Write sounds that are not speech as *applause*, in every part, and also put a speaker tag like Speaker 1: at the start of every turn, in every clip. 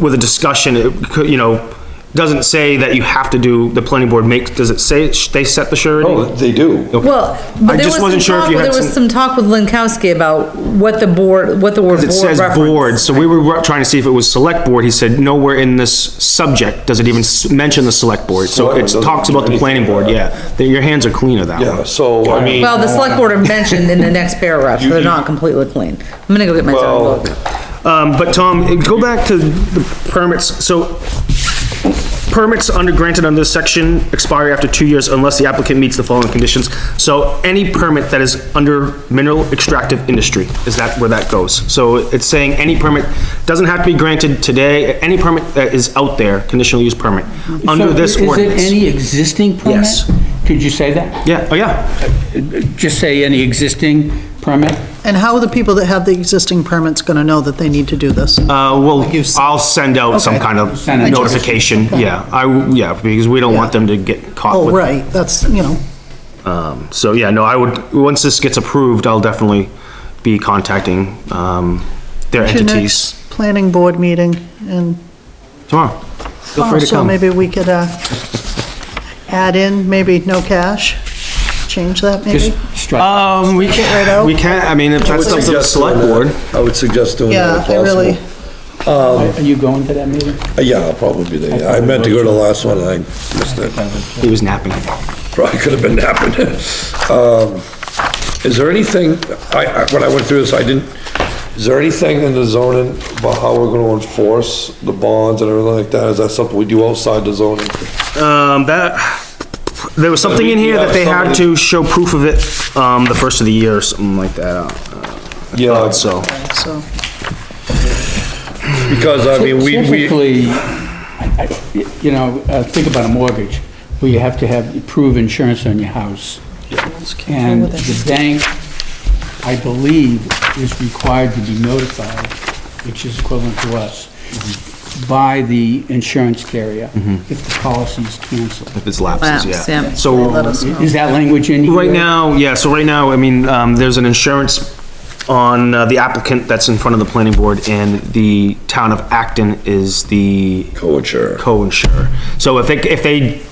Speaker 1: with a discussion, it could, you know, doesn't say that you have to do, the planning board makes, does it say sh- they set the surety?
Speaker 2: Oh, they do.
Speaker 3: Well,
Speaker 1: I
Speaker 3: but there
Speaker 1: just
Speaker 3: was some
Speaker 1: wasn't sure if
Speaker 3: talk,
Speaker 1: you had
Speaker 3: there was
Speaker 1: some-
Speaker 3: some talk with Lankowski about what the board, what the word
Speaker 1: It
Speaker 3: board
Speaker 1: says board,
Speaker 3: reference.
Speaker 1: so we were trying to see if it was select board, he said, nowhere in this subject does it even s- mention the select board, so
Speaker 2: Select
Speaker 1: it
Speaker 2: board doesn't
Speaker 1: talks about the
Speaker 2: do
Speaker 1: planning board,
Speaker 2: anything.
Speaker 1: yeah, That your hands are cleaner that
Speaker 2: Yeah,
Speaker 1: way.
Speaker 2: so, I mean.
Speaker 3: Well, the select board are mentioned in the next paragraph, so
Speaker 2: You-
Speaker 3: they're
Speaker 2: you-
Speaker 3: not completely clean. I'm gonna go get my
Speaker 2: Well-
Speaker 3: zoning book.
Speaker 1: Um, but Tom, go back to the permits, so permits under granted under this section expire after two years unless the applicant meets the following conditions. So any permit that is under mineral extractive industry, is that where that goes? So it's saying any permit, doesn't have to be granted today, any permit that is out there, conditional use permit, under
Speaker 4: So
Speaker 1: this ordinance.
Speaker 4: Is it any existing permit?
Speaker 1: Yes.
Speaker 4: Could you say that?
Speaker 1: Yeah, oh yeah,
Speaker 4: Just say any existing permit?
Speaker 5: And how are the people that have the existing permits gonna know that they need to do this?
Speaker 1: uh, well,
Speaker 5: you said.
Speaker 1: I'll send out some kind of
Speaker 4: Send it.
Speaker 1: notification, yeah, I, w- yeah, because we don't want them to get caught
Speaker 5: Oh,
Speaker 1: with
Speaker 5: right, that's, you know,
Speaker 1: So yeah, no, I would, once this gets approved, I'll definitely be contacting, um, their
Speaker 5: to
Speaker 1: entities
Speaker 5: next planning board meeting, and
Speaker 1: tomorrow. Feel
Speaker 3: Oh,
Speaker 1: free to
Speaker 5: also
Speaker 1: come.
Speaker 5: maybe we could, uh, add in, maybe no cash, change that maybe?
Speaker 4: Just strike.
Speaker 1: Um, we
Speaker 5: Right out?
Speaker 1: can, we can, I mean, if
Speaker 2: I would
Speaker 1: that's up to the
Speaker 2: suggest
Speaker 1: select
Speaker 2: doing
Speaker 1: board.
Speaker 2: that. I would suggest doing
Speaker 5: Yeah,
Speaker 2: that if
Speaker 5: I really,
Speaker 2: possible. Um,
Speaker 4: Are you going to that meeting?
Speaker 2: Uh, Yeah, I'll probably be there. I meant to go to the last one, I missed it.
Speaker 1: He was napping.
Speaker 2: Probably could have been happening. *laughs* Um, Is there anything, I, I- when I went through this, I didn't, is there anything in the zoning about how we're gonna enforce the bonds and everything like that? Is that something we do outside the zoning?
Speaker 1: Um, that, there was something in here that they had to show proof of it, um, the first of the year or something like that, uh,
Speaker 2: Yeah,
Speaker 1: so.
Speaker 5: so,
Speaker 2: because I mean, we, we,
Speaker 4: Typically, I- I- you know, uh, think about a mortgage, where you have to have, prove insurance on your house. And the bank, I believe, is required to be notified, which is equivalent to us, by the insurance carrier
Speaker 1: Mm-hmm.
Speaker 4: if the policy is canceled.
Speaker 1: if it's lapses,
Speaker 3: Lapse,
Speaker 1: yeah.
Speaker 3: yeah.
Speaker 1: So,
Speaker 4: Is that language in here?
Speaker 1: Right now, yeah, so right now, I mean, um, there's an insurance on uh, the applicant that's in front of the planning board, and the town of Acton is the
Speaker 2: co-insurer.
Speaker 1: co-insurer. So if they, if they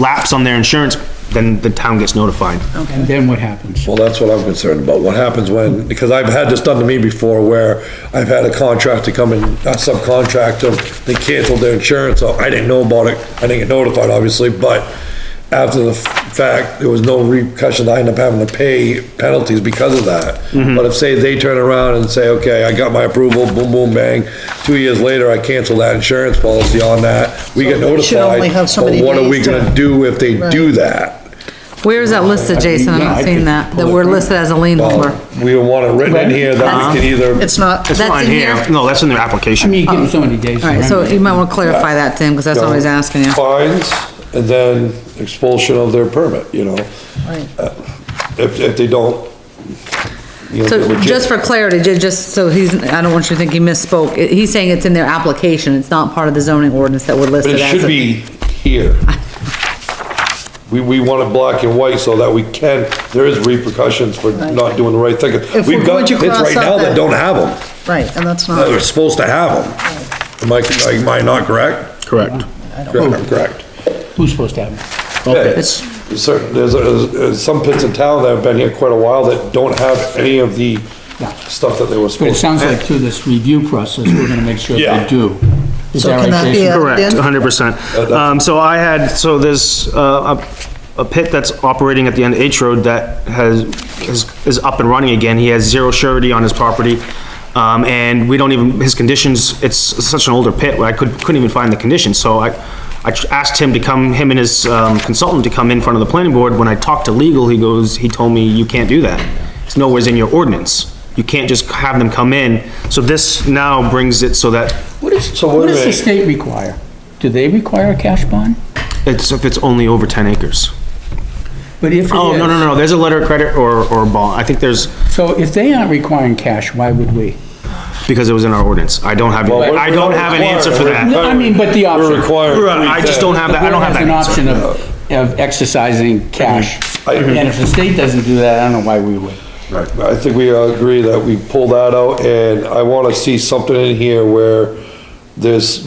Speaker 1: lapse on their insurance, then the town gets notified.
Speaker 4: And then what happens?
Speaker 2: Well, that's what I'm concerned about. What happens when, because I've had this done to me before where I've had a contractor come in, a subcontractor, they canceled their insurance, so I didn't know about it. I didn't get notified, obviously, but after the f- fact, there was no repercussion. I ended up having to pay penalties because of that.
Speaker 5: Mm-hmm.
Speaker 2: But if, say, they turn around and say, okay, I got my approval, boom, boom, bang, two years later, I cancel that insurance policy on that, we get
Speaker 5: So they should
Speaker 2: notified.
Speaker 5: only have so
Speaker 2: But
Speaker 5: many
Speaker 2: what are we
Speaker 5: days to-
Speaker 2: gonna do if they do that?
Speaker 3: Where is that listed, Jason? I'm
Speaker 4: Yeah, I
Speaker 3: not seeing
Speaker 4: could
Speaker 3: that, that
Speaker 4: pull it
Speaker 3: we're
Speaker 4: right.
Speaker 3: listed as a lien holder.
Speaker 2: Well, Uh, we don't want it written in here that we can either.
Speaker 5: it's not,
Speaker 1: It's
Speaker 3: That's
Speaker 1: not
Speaker 3: in here?
Speaker 1: No, that's in their
Speaker 4: I mean,
Speaker 1: application.
Speaker 4: you give them so many days. to
Speaker 3: All right, so
Speaker 4: remedy.
Speaker 3: you might want to clarify that, Tim, because that's what I was asking you.
Speaker 2: Fines, and then expulsion of their permit, you know,
Speaker 5: right.
Speaker 2: if, if they don't. you know, they're
Speaker 3: So
Speaker 2: legit.
Speaker 3: just for clarity, ju- just so he's, I don't want you to think he misspoke. I- He's saying it's in their application. It's not part of the zoning ordinance that we're
Speaker 2: But
Speaker 3: listed
Speaker 2: it
Speaker 3: as.
Speaker 2: should
Speaker 3: a-
Speaker 2: be here. We, we want it black and white so that we can, there is repercussions for not doing the right thing.
Speaker 5: If we-
Speaker 2: We've got
Speaker 5: would you
Speaker 2: kids right
Speaker 5: cross out
Speaker 2: now that
Speaker 5: that- Oh.
Speaker 2: don't have them,
Speaker 5: Right, and that's
Speaker 2: that
Speaker 5: not,
Speaker 2: are supposed to have them. Am I, am I not correct?
Speaker 1: Correct.
Speaker 2: Correct, I'm correct.
Speaker 4: Who's supposed to have them?
Speaker 2: Yeah, it's- Certain, there's, there's- there's some pits in town that have been here quite a while that don't have any of the stuff that they were
Speaker 4: But it
Speaker 2: supposed to.
Speaker 4: sounds like through this review process, we're gonna make sure
Speaker 2: Yeah.
Speaker 4: they do. Is
Speaker 5: So
Speaker 4: that
Speaker 5: can
Speaker 4: right,
Speaker 5: that be
Speaker 4: Jason?
Speaker 5: a-
Speaker 1: Correct,
Speaker 5: Dan?
Speaker 1: hundred percent. Um, so I had, so there's, uh, a, a pit that's operating at the end of H Road that has, is, is up and running again. He has zero surety on his property. Um, and we don't even, his conditions, it's such an older pit, where I could, couldn't even find the conditions, so I, I tr- asked him to come, him and his, um, consultant to come in front of the planning board. When I talked to legal, he goes, he told me, you can't do that. It's nowhere's in your ordinance. You can't just have them come in. So this now brings it so that
Speaker 4: What is,
Speaker 2: So wait a
Speaker 4: what does the
Speaker 2: minute.
Speaker 4: state require? Do they require a cash bond?
Speaker 1: it's, if it's only over ten acres.
Speaker 4: But if it
Speaker 1: Oh, no,
Speaker 4: is-
Speaker 1: no, no, there's a letter of credit or, or a bond, I think there's,
Speaker 4: So if they aren't requiring cash, why would we?
Speaker 1: because it was in our ordinance, I don't have,
Speaker 2: Well, we're-
Speaker 1: I don't have an answer for that.
Speaker 4: No, I mean, but the option.
Speaker 2: We're requiring. three
Speaker 1: Right, I just don't have that, I don't have that
Speaker 4: An
Speaker 1: answer.
Speaker 4: option of, of exercising cash.
Speaker 2: I-
Speaker 4: And if the state doesn't do that, I don't know why we would.
Speaker 2: things. I think we all agree that we pull that out, and I wanna see something in here where there's